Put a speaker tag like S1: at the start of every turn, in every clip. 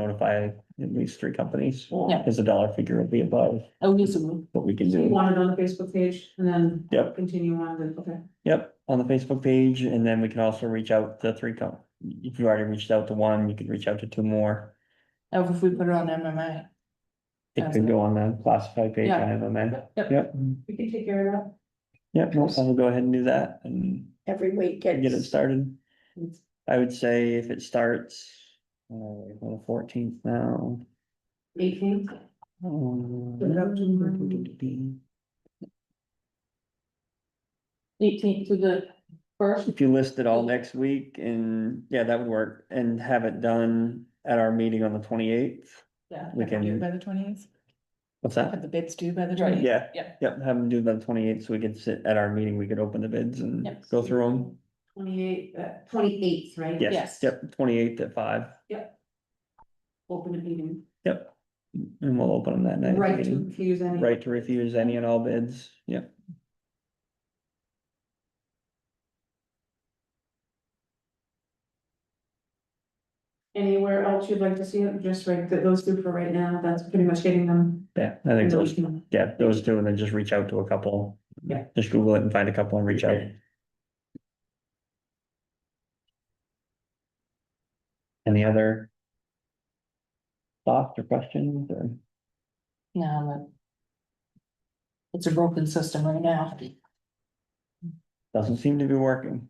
S1: notify at least three companies.
S2: Yeah.
S1: Because the dollar figure will be above
S2: Oh, yes, it will.
S1: what we can
S3: So you
S1: do.
S3: want it on the Facebook page and then
S1: Yep.
S3: continue on, then, okay.
S1: Yep, on the Facebook page, and then we can also reach out to three com, if you already reached out to one, you could reach out to two more.
S2: Oh, if we put it on MMA.
S1: It could go on the classified page on
S2: Yeah.
S1: MMA.
S2: Yep.
S1: Yep,
S3: We can take care of
S1: yep, no, I'll go ahead and do that and
S4: every week
S1: get it
S4: it's
S1: started.
S3: that.
S1: I would say if it starts, uh, on the fourteenth now.
S3: Eighteenth, it up to
S1: um,
S2: Eighteenth to the first,
S1: If you list it all next week and, yeah, that would work, and have it done at our meeting on the twenty-eighth,
S2: yeah.
S1: we
S5: Due
S1: can,
S5: by the twentieth,
S1: what's that?
S5: have the bids due by the
S2: Right.
S5: twentieth.
S1: Yeah.
S2: Yeah.
S1: Yep, have them do by the twenty eighth, so we could sit at our meeting, we could open the bids and
S2: Yep.
S1: go through them.
S3: twenty-eighth, uh, twenty-eighth, right?
S1: Yes,
S2: Yes.
S1: yep, twenty eighth at five,
S3: Open a meeting,
S1: yep. And we'll open them that night.
S3: right to
S1: meeting.
S3: refuse any.
S1: Right to refuse any and all bids, yep.
S3: Anywhere else you'd like to see it, just right, th- those two for right now, that's pretty much getting them.
S1: Yeah, I think those,
S3: Those-
S1: yeah, those two, and then just reach out to a couple.
S3: Yeah.
S1: Just Google it and find a couple and reach out. Any other? Thoughts or questions or?
S2: No, but It's a broken system right now.
S1: Doesn't seem to be working.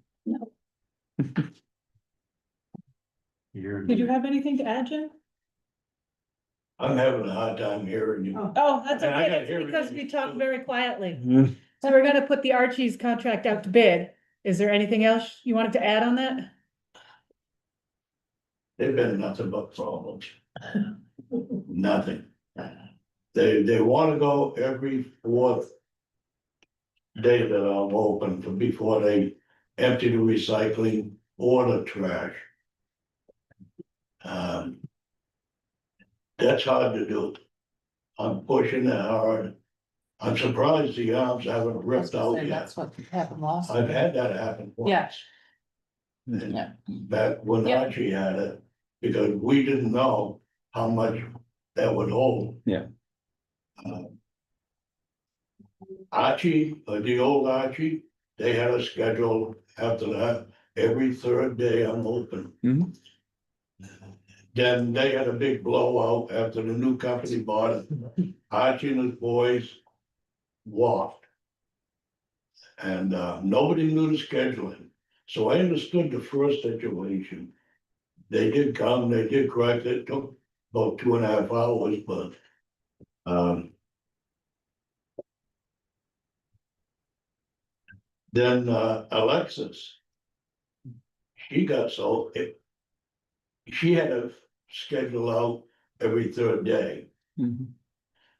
S6: You're,
S5: Did you have anything to add, Jim?
S6: I'm having a hard time hearing you.
S5: Oh, that's
S6: And I
S5: okay,
S6: gotta hear
S5: that's because we
S6: everything.
S5: talk very quietly.
S1: Mhm.
S5: So we're gonna put the Archie's contract out to bid. Is there anything else you wanted to add on that?
S6: They've been nothing but problems. Nothing.
S2: Uh.
S6: They, they wanna go every fourth day that I'm open for before they empty the recycling or the trash. Um, that's hard to do. I'm pushing it hard. I'm surprised the arms haven't ripped out yet.
S2: That's what happened last.
S6: Oh, I've had that happen once.
S2: Yeah.
S6: And
S2: Yeah.
S6: Back when
S2: Yeah.
S6: Archie had it, because we didn't know how much that would hold.
S1: Yeah.
S6: Um, Archie, uh, the old Archie, they had a schedule after that, every third day I'm open.
S1: Mhm.
S6: Then they had a big blowout after the new company bought it. Archie and his boys walked. And uh, nobody knew the scheduling, so I understood the first situation. They did come, they did correct it, took about two and a half hours, but um. Then uh, Alexis. She got so it. She had to schedule out every third day.
S1: Mhm.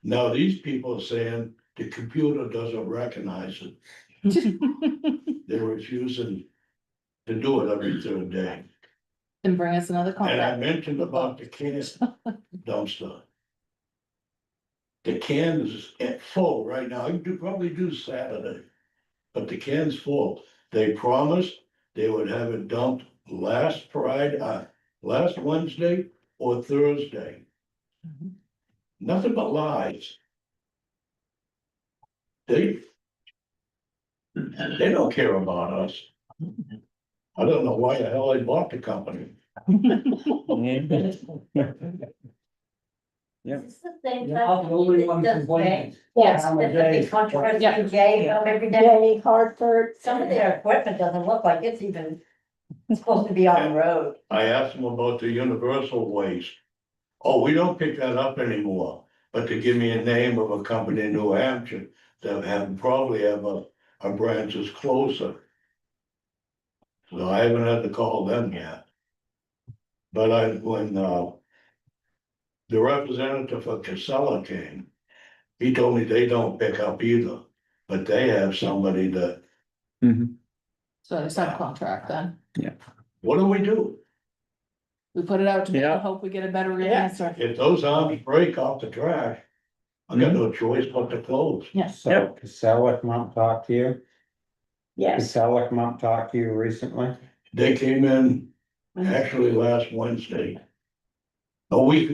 S6: Now, these people are saying the computer doesn't recognize it. They're refusing to do it every third day.
S2: And bring us another
S6: And I
S2: contract.
S6: mentioned about the can dumpster. The can is at full right now. I could probably do Saturday. But the can's full. They promised they would have it dumped last Friday, uh, last Wednesday or Thursday.
S2: Mhm.
S6: Nothing but lies. They. They don't care about us. I don't know why the hell they bought the company.
S1: Yeah. Yep.
S7: It's the same
S8: You're not the only one
S7: company that does
S8: complaining.
S7: that. Yes,
S8: I'm a
S7: that's a
S8: gay.
S7: big controversy,
S2: Yeah.
S7: gay, um, every day.
S4: Danny Hartford.
S7: Some of their equipment doesn't look like it's even, it's supposed to be on the road.
S6: I asked them about the universal waste. Oh, we don't pick that up anymore, but to give me a name of a company in New Hampshire that have probably have a, a branch is closer. So I haven't had to call them yet. But I, when, uh, the representative for Casella came, he told me they don't pick up either, but they have somebody that,
S1: Mhm.
S2: So it's not a contract then.
S6: what do we do?
S2: We put it out to bid
S1: Yeah.
S2: and hope we get a better
S7: Yeah.
S2: answer.
S6: If those arms break off the track, I got no choice but to close.
S2: Yes.
S8: So Casella come up and talk to you?
S4: Yes,
S8: Casella come up and talk to you recently?
S6: They came in actually last Wednesday. A week